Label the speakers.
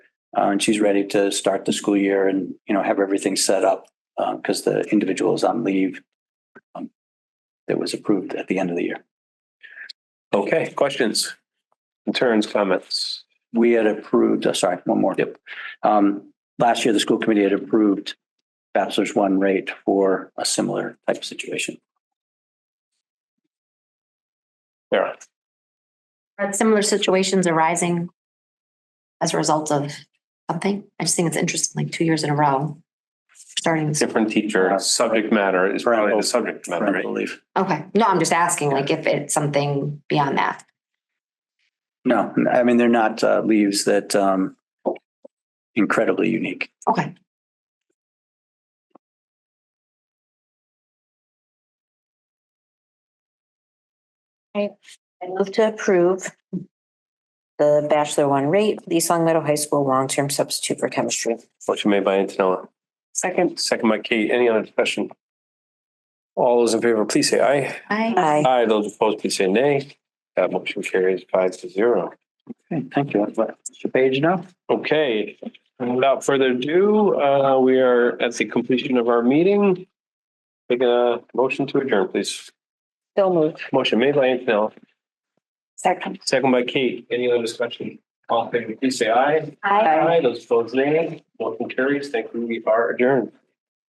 Speaker 1: Uh, and she's ready to start the school year and, you know, have everything set up because the individual is on leave um, that was approved at the end of the year.
Speaker 2: Okay, questions, concerns, comments?
Speaker 1: We had approved, uh, sorry, one more. Yep. Um, last year, the school committee had approved bachelor's one rate for a similar type of situation.
Speaker 2: Sarah,
Speaker 3: Are similar situations arising as a result of something? I just think it's interesting, like two years in a row, starting.
Speaker 2: different teacher, subject matter is probably the subject matter,
Speaker 1: Parental
Speaker 2: right?
Speaker 1: leave.
Speaker 3: Okay, no, I'm just asking like if it's something beyond that.
Speaker 1: No, I mean, they're not uh, leaves that um, incredibly unique.
Speaker 3: Okay,
Speaker 4: I move to approve the Bachelor One rate, for the East Long Meadow High School long-term substitute for chemistry.
Speaker 2: Motion made by Antonella,
Speaker 4: Second.
Speaker 2: second by Kate. Any other discussion? All those in favor, please say aye.
Speaker 3: I,
Speaker 4: Aye.
Speaker 2: Aye, those opposed, please say nay. That motion carries five to zero.
Speaker 1: Okay, thank you. Mr. Page now?
Speaker 2: Okay, and without further ado, uh, we are at the completion of our meeting. Make a motion to adjourn, please.
Speaker 4: So moved.
Speaker 2: Motion made by Antonella,
Speaker 4: Second.
Speaker 2: second by Kate. Any other discussion? All in favor, please say aye.
Speaker 3: I.
Speaker 2: Those opposed, nay. Motion carries. Thank you. We are adjourned.